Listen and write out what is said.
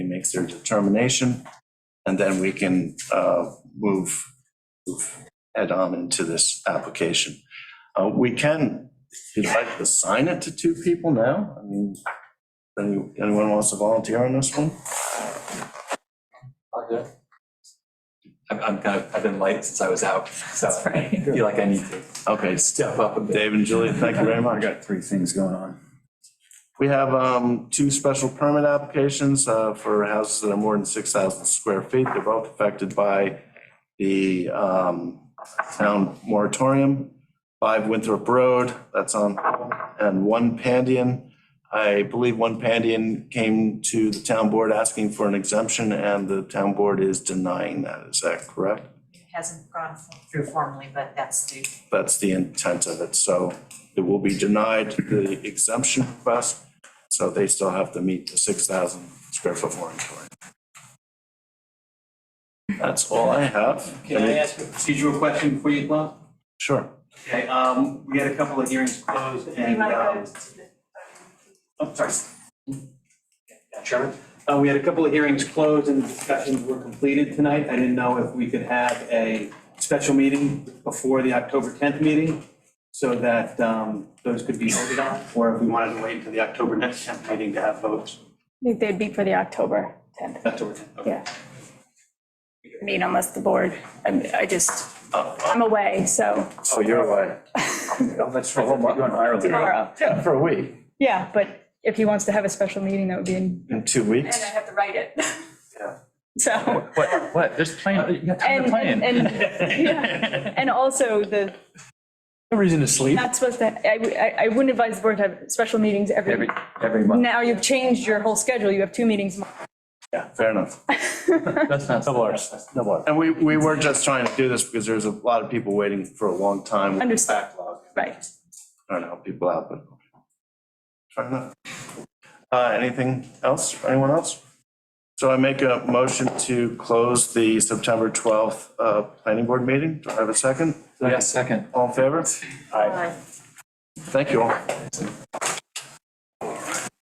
makes their determination, and then we can uh, move, move head on into this application. Uh, We can, if you'd like, assign it to two people now. I mean, any- anyone wants to volunteer on this one? I'm, I'm kind of, I've been light since I was out, so I feel like I need to Okay, step up a bit. Dave and Julie, thank you very much. got three things going on. We have um, two special permit applications uh, for houses that are more than 6,000 square feet. They're both affected by the um, town moratorium. Five Winthrop Road, that's on, and One Pandian. I believe One Pandian came to the town board asking for an exemption, and the town board is denying that. Is that correct? It hasn't gone through formally, but that's the, that's the intent of it. So it will be denied the exemption request, so they still have to meet the 6,000 square foot moratorium. That's all I have. Can I ask a procedural question before you close? Sure. Okay, um, we had a couple of hearings closed and, um, oh, sorry. Chairman, uh, we had a couple of hearings closed and discussions were completed tonight. I didn't know if we could have a special meeting before the October tenth meeting so that, um, those could be voted on, or if we wanted to wait until the October next tenth meeting to have votes. I think they'd be for the October 10th, October tenth, okay. yeah. I mean, unless the board, I'm- I just, I'm away, so Oh, you're away. Oh, That's for a whole month. You're in Ireland. tomorrow. Yeah, for a week. Yeah, but if he wants to have a special meeting, that would be in. In two weeks. have to write it. So, What, what? There's plan, you got time to plan. and, and, and- yeah. and also the, No reason to sleep. not supposed to, I, w- I- I wouldn't advise the board to have special meetings Every, every, every month. now you've changed your whole schedule, you have two meetings a month. Yeah, fair enough. That's not. Double ours. No more. And we, we were just trying to do this because there's a lot of people waiting for a long time. Understood. Backlog. Right. Trying to help people out, but. Fair enough. Uh, anything else, anyone else? So I make a motion to close the September twelfth, uh, planning board meeting. Do I have a second? Yeah, second. All in favor? Aye. Thank you all.